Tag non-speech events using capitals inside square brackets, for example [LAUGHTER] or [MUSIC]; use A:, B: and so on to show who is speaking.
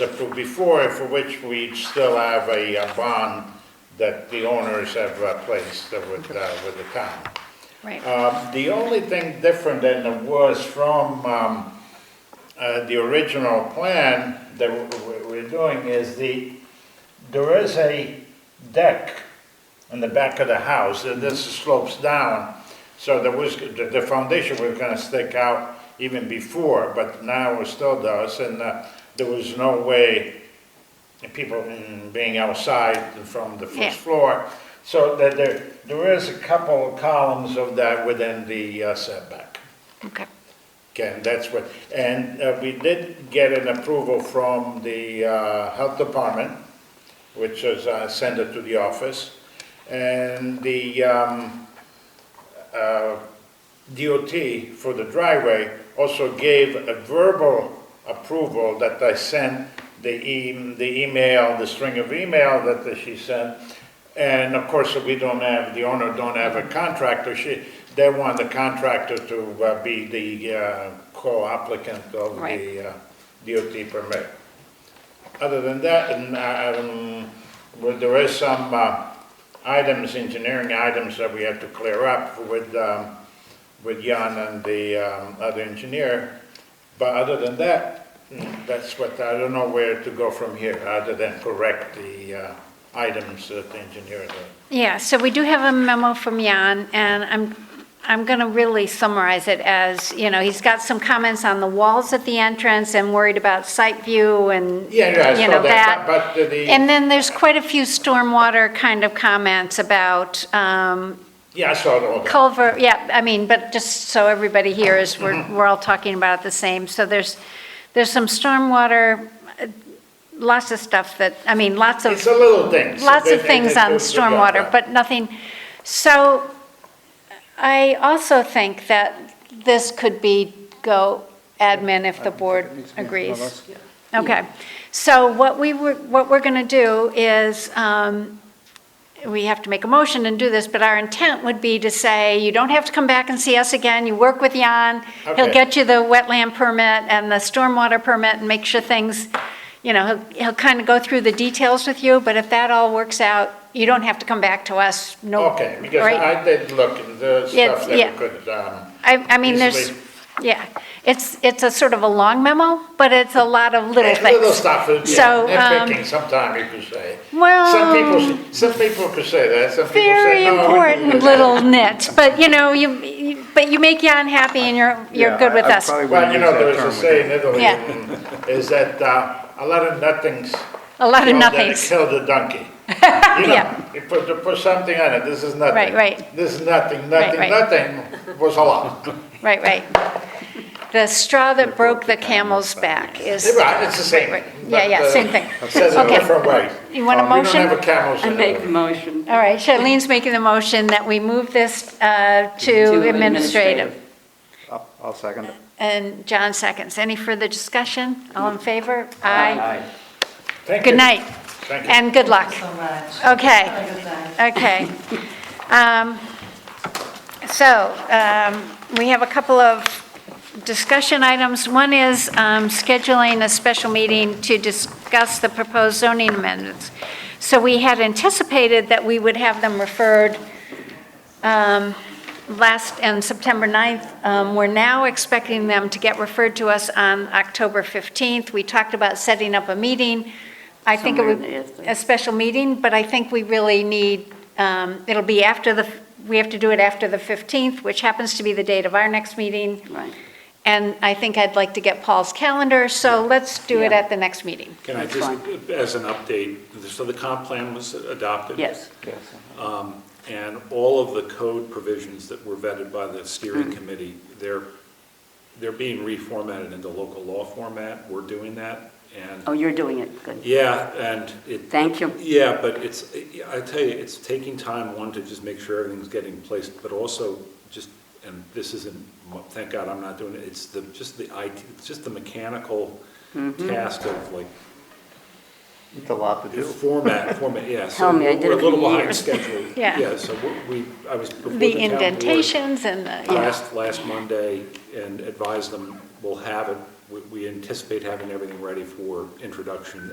A: the- before, for which we still have a uh, bond that the owners have uh, placed with, uh, with the town.
B: Right.
A: Um, The only thing different than it was from um, uh, the original plan that w- w- we're doing is the, there is a deck in the back of the house, and this slopes down, so there was, the the foundation was gonna stick out even before, but now it still does, and uh, there was no way and people mm, being outside from the
B: Yeah.
A: first floor. So that there, there is a couple of columns of that within the uh, setback.
B: Okay.
A: Again, that's what, and uh, we did get an approval from the uh, health department, which is, uh, sent it to the office. And the um, uh, DOT for the driveway also gave a verbal approval that I sent the e- the email, the string of email that she sent. And of course, we don't have, the owner don't have a contractor, she, they want the contractor to uh, be the uh, co-applicant of
B: Right.
A: the uh, DOT permit. Other than that, and, uh, um, well, there is some, uh, items, engineering items that we have to clear up with, um, with Jan and the, um, other engineer. But other than that, mm, that's what, I don't know where to go from here, other than correct the, uh, items that the engineer did.
B: Yeah, so we do have a memo from Jan, and I'm, I'm going to really summarize it as, you know, he's got some comments on the walls at the entrance and worried about site view and, you
A: Yeah, yeah, I
B: know,
A: saw that,
B: that.
A: but but the,
B: And then there's quite a few stormwater kind of comments about um,
A: yeah, I saw all that.
B: culvert, yeah, I mean, but just so everybody hears, we're,
A: Mm-hmm.
B: we're all talking about the same. So there's, there's some stormwater, uh, lots of stuff that, I mean, lots of
A: It's a little things.
B: lots
A: They-
B: of
A: they-
B: things
A: they
B: on
A: go together.
B: stormwater, but nothing, so I also think that this could be go admin if the board agrees. Okay, so what we were, what we're going to do is, um, we have to make a motion and do this, but our intent would be to say, you don't have to come back and see us again, you work with Jan, he'll
A: Okay.
B: get you the wetland permit and the stormwater permit and make sure things, you know, he'll, he'll kind of go through the details with you, but if that all works out, you don't have to come back to us, no.
A: Okay, because
B: right?
A: I did look at the
B: Yeah,
A: stuff that
B: yeah.
A: we could, um,
B: I, I mean, there's,
A: Easily.
B: yeah, it's, it's a sort of a long memo, but it's a lot of little
A: Yeah, Little
B: things.
A: stuff, uh, yeah,
B: So, um,
A: nitpicking, sometimes you could say. Some
B: Well,
A: people, some people could say that, some people
B: very
A: say, "Oh, no. we
B: important
A: [LAUGHS] didn't."
B: little nits, but you know, you- you, but you make Jan happy and you're, you're
C: Yeah,
B: good
C: I-
B: with
C: I
B: us.
C: probably
A: Well,
C: wouldn't
A: you
C: use
A: know, there
C: that
A: is a
C: term
A: saying in
C: again.
A: Italy,
B: Yeah.
A: mm, is that uh, a lot of nothings.
B: A lot of
A: kill the-
B: nothings.
A: Kill the
B: [LAUGHS]
A: donkey. You know,
B: Yeah.
A: You put, you put something on it, this is nothing.
B: Right, right.
A: This is nothing, nothing,
B: right.
A: nothing was a
B: [LAUGHS]
A: lot.
B: Right, right. The straw that broke the camel's back is,
A: Right, it's the same.
B: Right, right. Yeah, yeah,
A: but, uh,
B: same thing.
A: Says it a
B: Okay.
A: different way.
B: You want a
A: Uh,
B: motion?
A: We don't have a camel's.
D: I
A: in
D: make
A: Italy.
D: the motion.
B: all right, Charlene's making the motion that we move this uh, to administrative.
C: I'll- I'll second it.
B: And John seconds. Any further discussion? All in favor? Aye.
A: Thank
B: Good
A: you.
B: night,
A: Thank you.
B: and good luck.
E: so much.
B: Okay.
E: Have a good night.
B: Okay. Um, So, um, we have a couple of discussion items. One is um, scheduling a special meeting to discuss the proposed zoning amendments. So we had anticipated that we would have them referred um, last, and September 9th. Um, We're now expecting them to get referred to us on October 15th. We talked about setting up a meeting. I think it
D: Somewhere
B: would,
D: in the-
B: a special meeting, but I think we really need, um, it'll be after the, we have to do it after the 15th, which happens to be the date of our next meeting.
D: Right.
B: And I think I'd like to get Paul's calendar, so let's do it
D: Yeah.
B: at the next meeting.
F: Can I
D: That's
F: just, as an update, so the comp plan was adopted?
D: Yes.
F: And all of the code provisions that were vetted by the
D: Mm-hmm.
F: steering committee, they're, they're being reformatted into local law format. We're doing that,
D: Oh,
F: and,
D: you're doing it, good.
F: yeah, and it,
D: Thank you.
F: yeah, but it's, I tell you, it's taking time, one, to just make sure everything's getting placed, but also just, and this isn't, thank God I'm not doing it, it's the, just the IT, it's just the mechanical
D: Mm-hmm.
F: task of like
C: It's a lot to do.
F: Format, format, yeah. so
D: Tell me, I did
F: We're a
D: it
F: little
D: for
F: behind
D: years.
F: schedule.
B: [LAUGHS] Yeah.
F: so we, we- I was before the
B: The
F: town board
B: indentations and the, yeah.
F: Last, last Monday and advised them, we'll have it we- we anticipate having everything ready for introduction